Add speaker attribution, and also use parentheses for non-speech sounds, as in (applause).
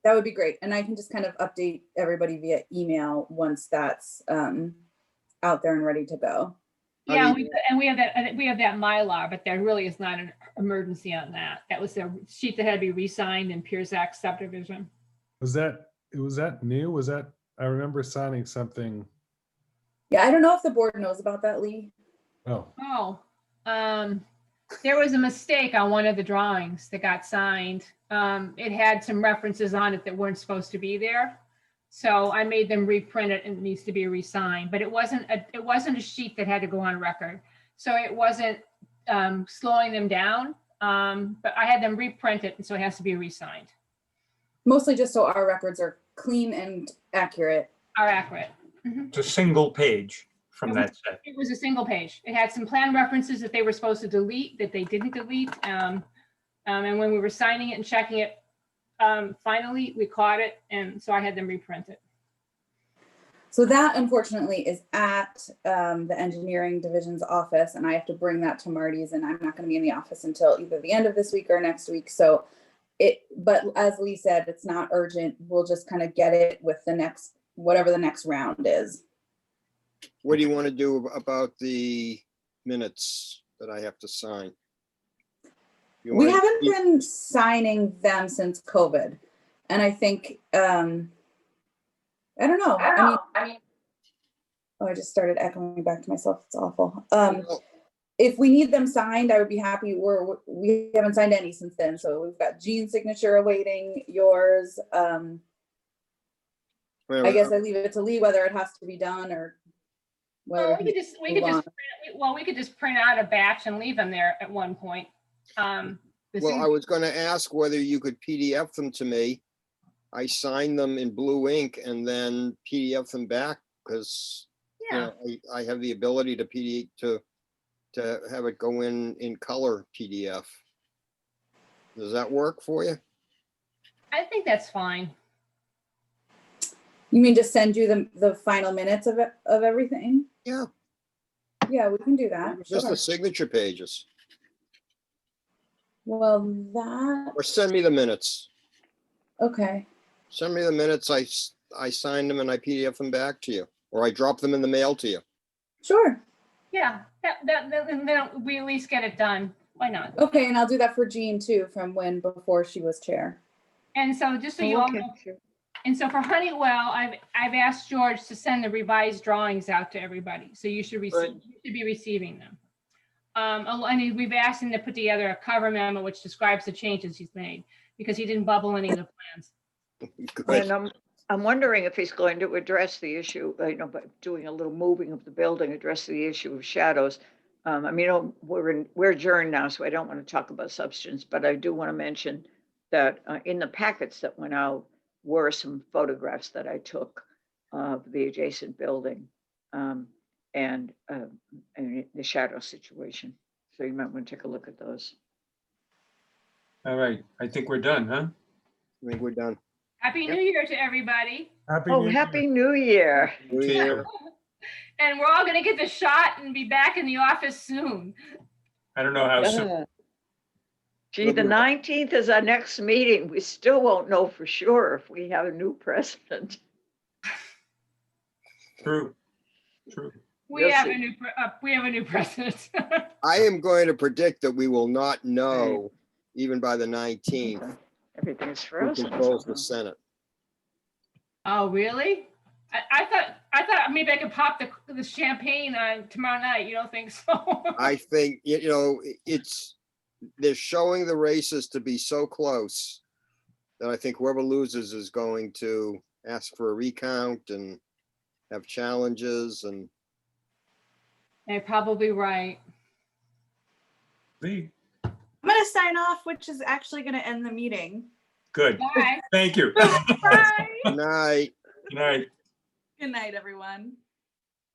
Speaker 1: That would be great. And I can just kind of update everybody via email once that's um, out there and ready to go.
Speaker 2: I
Speaker 3: Yeah,
Speaker 2: mean-
Speaker 3: we- and we have that, and we have that Mylar, but there really is not an emergency on that. That was a sheet that had to be re-signed in Piers Act subdivision.
Speaker 4: Was that, was that new? Was that, I remember signing something.
Speaker 1: Yeah, I don't know if the board knows about that, Lee.
Speaker 4: Oh,
Speaker 3: Oh, um, there was a mistake on one of the drawings that got signed. Um, it had some references on it that weren't supposed to be there. So I made them reprint it and it needs to be re-signed, but it wasn't, a it wasn't a sheet that had to go on record. So it wasn't, um, slowing them down. Um, but I had them reprint it and so it has to be re-signed,
Speaker 1: Mostly just so our records are clean and accurate.
Speaker 3: are accurate.
Speaker 5: It's a single page from that set.
Speaker 3: It was a single page. It had some plan references that they were supposed to delete, that they didn't delete. Um, um, and when we were signing it and checking it, um, finally, we caught it, and so I had them reprint it.
Speaker 1: So that unfortunately is at um, the engineering division's office and I have to bring that to Marty's and I'm not gonna be in the office until either the end of this week or next week. So it, but as Lee said, it's not urgent. We'll just kind of get it with the next, whatever the next round is.
Speaker 2: What do you want to do ab- about the minutes that I have to sign? You
Speaker 1: We
Speaker 2: wanna
Speaker 1: haven't
Speaker 3: e
Speaker 2: keep-
Speaker 1: been signing them since COVID. And I think, um, I don't know. I mean, oh, I just started echoing back to myself. It's awful. Um,
Speaker 2: Well,
Speaker 1: if we need them signed, I would be happy. We're, we haven't signed any since then, so we've got Gene's signature awaiting yours. Um,
Speaker 2: wait, Uh,
Speaker 1: I guess
Speaker 2: wait,
Speaker 1: I leave it to Lee whether it has to be done or
Speaker 3: Well,
Speaker 1: whether,
Speaker 3: we could just, we could
Speaker 1: Wow.
Speaker 3: just, print- well, we could just print out a batch and leave them there at one point. Um, the
Speaker 2: Well, I
Speaker 3: signature-
Speaker 2: was going to ask whether you could PDF them to me. I signed them in blue ink and then PDF them back because
Speaker 3: yeah,
Speaker 2: I, I have the ability to PD, to, to have it go in, in color PDF. Does that work for you?
Speaker 3: I think that's fine.
Speaker 1: you mean just send you the, the final minutes of, it- of everything?
Speaker 2: Yeah.
Speaker 1: Yeah, we can do that.
Speaker 2: Just
Speaker 1: sure.
Speaker 2: the signature pages
Speaker 1: Well, that,
Speaker 2: or send me the minutes.
Speaker 1: okay,
Speaker 2: Send me the minutes. I, s- I signed them and I PDF them back to you, or I drop them in the mail to you.
Speaker 1: sure.
Speaker 3: Yeah, that, that, then, then we at least get it done. Why not?
Speaker 1: Okay, and I'll do that for Jean too, from when, before she was chair.
Speaker 3: And so just so you all know, And so for Honeywell, I've, I've asked George to send the revised drawings out to everybody, so you should receive,
Speaker 5: Right.
Speaker 3: you should be receiving them. Um, al- and we've asked him to put together a cover memo which describes the changes he's made, because he didn't bubble any of the plans.
Speaker 2: Good.
Speaker 6: And I'm, I'm wondering if he's going to address the issue, uh, you know, by doing a little moving of the building, address the issue of shadows. Um, I mean, oh, we're in, we're adjourned now, so I don't want to talk about substance, but I do want to mention that uh, in the packets that went out were some photographs that I took of the adjacent building um, and, uh, and the shadow situation. So you might want to take a look at those.
Speaker 5: All right, I think we're done, huh?
Speaker 2: I think we're done.
Speaker 3: Happy New Year to everybody,
Speaker 4: happy.
Speaker 6: Oh,
Speaker 4: New Year.
Speaker 6: Happy New Year.
Speaker 2: New Year.
Speaker 3: and we're all gonna get the shot and be back in the office soon.
Speaker 5: I don't know how soon.
Speaker 6: Yeah. Gee, the
Speaker 2: Lovely.
Speaker 6: nineteenth is our next meeting. We still won't know for sure if we have a new (laughs) president.
Speaker 5: True, true.
Speaker 3: We
Speaker 6: Yes,
Speaker 3: have a
Speaker 6: it-
Speaker 3: new, pre- uh, we have a new (laughs) president.
Speaker 2: I am going to predict that we will not know even by the 19th
Speaker 6: Everything is
Speaker 2: who
Speaker 6: frozen.
Speaker 2: controls the
Speaker 6: somehow.
Speaker 2: Senate.
Speaker 3: Oh, really? I, I thought, I thought maybe I could pop the, the champagne on tomorrow night, you don't think so? (laughs)
Speaker 2: I think, you you know, i- it's, they're showing the races to be so close that I think whoever loses is going to ask for a recount and have challenges and
Speaker 3: They're probably right.
Speaker 5: Lee,
Speaker 1: I'm gonna sign off, which is actually gonna end the meeting.
Speaker 5: Good,
Speaker 3: Bye.
Speaker 1: (laughs)
Speaker 5: thank you.
Speaker 3: Bye.
Speaker 2: Good night.
Speaker 5: Good night.
Speaker 1: Good night, everyone.